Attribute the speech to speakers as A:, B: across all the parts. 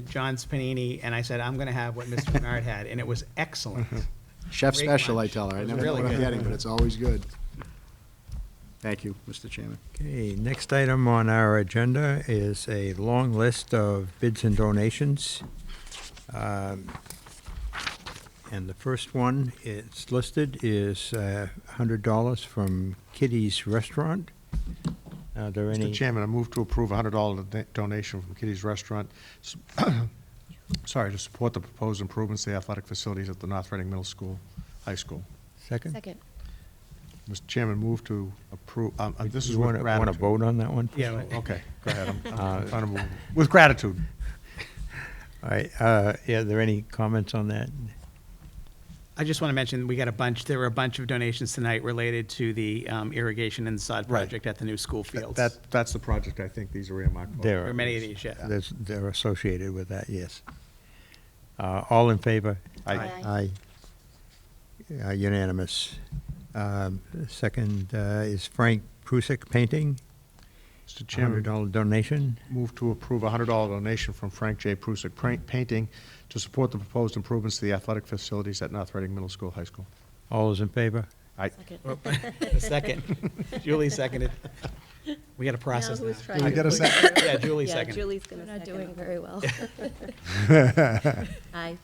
A: John Panini, and I said, I'm going to have what Mr. Bernard had, and it was excellent.
B: Mm-hmm.
C: Chef
A: Great
C: special, I
A: lunch.
C: tell her.
A: It
C: I
A: was
C: never know
A: really
C: what I'm
A: good.
C: getting, but it's always good. Thank you, Mr. Chairman.
D: Okay, next item on our agenda is a long list of bids and donations. Um, And the first one, it's listed, is uh, $100 from Kitty's Restaurant. Are there any?
B: Mr. Chairman, I move to approve a hundred dollar donation from Kitty's Restaurant, s- sorry, to support the proposed improvements to the athletic facilities at the North Reading Middle School, High School.
D: Second?
E: Second.
B: Mr. Chairman, move to approve, um, uh, this is
D: You
B: with
D: want to, want to
B: gratitude.
D: vote on that one?
A: Yeah, but-
B: Okay, go ahead, I'm-
D: Uh,
B: I'm trying to move, with gratitude.
D: All right, uh, yeah, are there any comments on that?
A: I just want to mention, we got a bunch, there were a bunch of donations tonight related to the um, irrigation and sod
B: Right.
A: project at the new school fields.
B: That, that's the project I think these are earmarked for.
D: There
A: There are many of these, yeah.
D: There's- They're associated with that, yes. Uh, All in favor?
B: I-
D: Aye. Uh, Unanimous. Um, Second uh, is Frank Prusik Painting,
B: Mr. Chairman,
D: $100 donation.
B: Move to approve a hundred dollar donation from Frank J. Prusik Pra- Painting to support the proposed improvements to the athletic facilities at North Reading Middle School, High School.
D: All those in favor?
B: I,
E: Oh.
A: The Oh, Second, Julie seconded. We got to process
E: Now who's
A: that.
E: trying
B: I
E: to
B: got a
E: push
B: sec-
E: through?
A: Yeah, Julie
E: Yeah,
A: seconded.
E: Julie's going
F: We're
E: to
F: not
E: second.
F: doing
E: it.
F: very well.
E: Aye.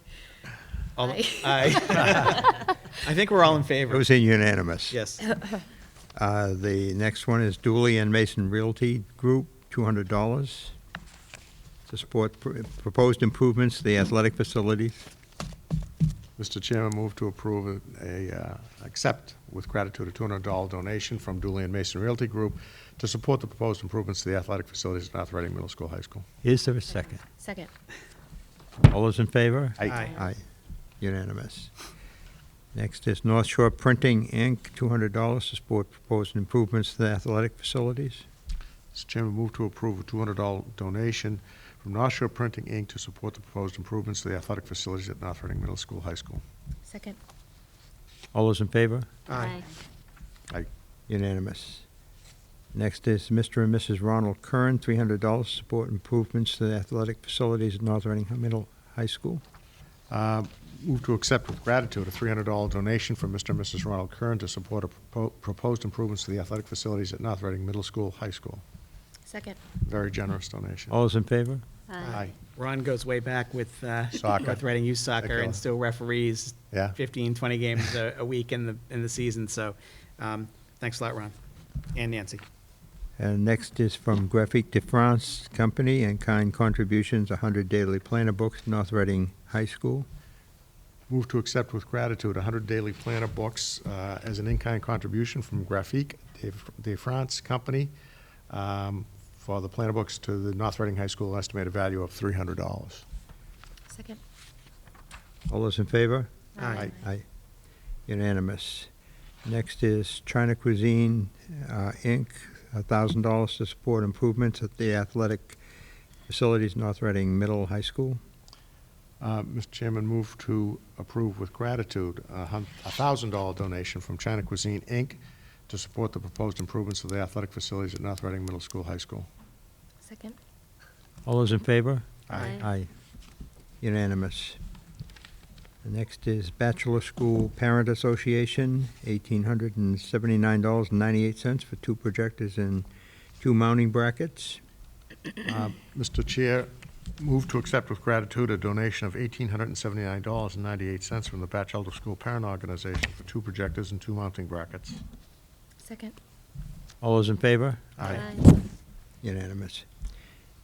A: All-
E: Aye.
A: aye. I think we're all in
D: It
A: favor.
D: was unanimous.
A: Yes.
D: Uh, The next one is Dooley and Mason Realty Group, $200 to support pr- proposed improvements to the athletic facilities.
B: Mr. Chairman, move to approve a, a, uh, accept with gratitude a $200 donation from Dooley and Mason Realty Group to support the proposed improvements to the athletic facilities at North Reading Middle School, High School.
D: Is there a second?
E: Second.
D: All those in favor?
B: Aye.
A: Aye.
D: Aye, unanimous. Next is North Shore Printing, Inc., $200 to support proposed improvements to the athletic facilities.
B: Mr. Chairman, move to approve a $200 donation from North Shore Printing, Inc. to support the proposed improvements to the athletic facilities at North Reading Middle School, High School.
E: Second.
D: All those in favor?
A: Aye.
B: Aye.
D: Unanimous. Next is Mr. and Mrs. Ronald Kern, $300 to support improvements to the athletic facilities at North Reading Middle High School.
B: Uh, Move to accept with gratitude a $300 donation from Mr. and Mrs. Ronald Kern to support a propo- proposed improvements to the athletic facilities at North Reading Middle School, High School.
E: Second.
B: Very generous donation.
D: All those in favor?
B: Aye.
A: Ron goes way back with uh,
B: Soccer.
A: North Reading Youth Soccer
B: Secular.
A: and still referees
B: Yeah.
A: 15, 20 games a a week in the, in the season. So um, thanks a lot, Ron and Nancy.
D: And next is from Graphic de France Company, and kind contributions, 100 daily planner books, North Reading High School.
B: Move to accept with gratitude 100 daily planner books uh, as an in-kind contribution from Graphique de- de France Company um, for the planner books to the North Reading High School, estimated value of $300.
E: Second.
D: All those in favor?
A: Aye.
D: Aye. Unanimous. Next is China Cuisine, uh, Inc., thousand dollars to support improvements at the athletic facilities, North Reading Middle High School.
B: Uh, Mr. Chairman, move to approve with gratitude a hun- a $1,000 donation from China Cuisine, Inc. to support the proposed improvements of the athletic facilities at North Reading Middle School, High School.
E: Second.
D: All those in favor?
E: Aye.
D: Aye. Unanimous. The Next is Bachelor School Parent Association, eighteen hundred and seventy-nine dollars and ninety-eight cents for two projectors and two mounting brackets.
B: Mr. Chair, move to accept with gratitude a donation of $1,879.98 from the Batchelder School Parent Organization for two projectors and two mounting brackets.
E: Second.
D: All those in favor?
E: Aye.
D: Unanimous.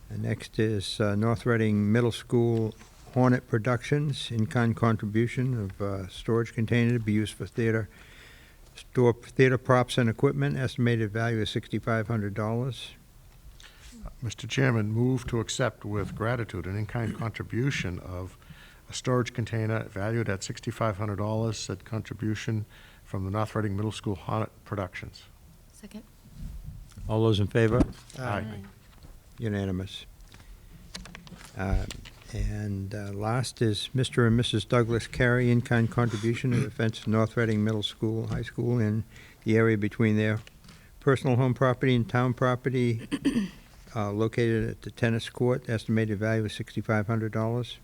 D: And next is uh, North Reading Middle School Hornet Productions, in-kind contribution of uh, storage container to be used for theater, store theater props and equipment, estimated value of $6,500.
B: Mr. Uh, Chairman, move to accept with gratitude an in-kind contribution of a storage container valued at $6,500, said contribution from the North Reading Middle School Hornet Productions.
E: Second.
D: All those in favor?
B: Aye.
D: Unanimous. Uh, And uh, last is Mr. and Mrs. Douglas Carey, in-kind contribution of the fence at North Reading Middle School, High School, and the area between their personal home property and town property uh, located at the tennis court, estimated value of $6,500.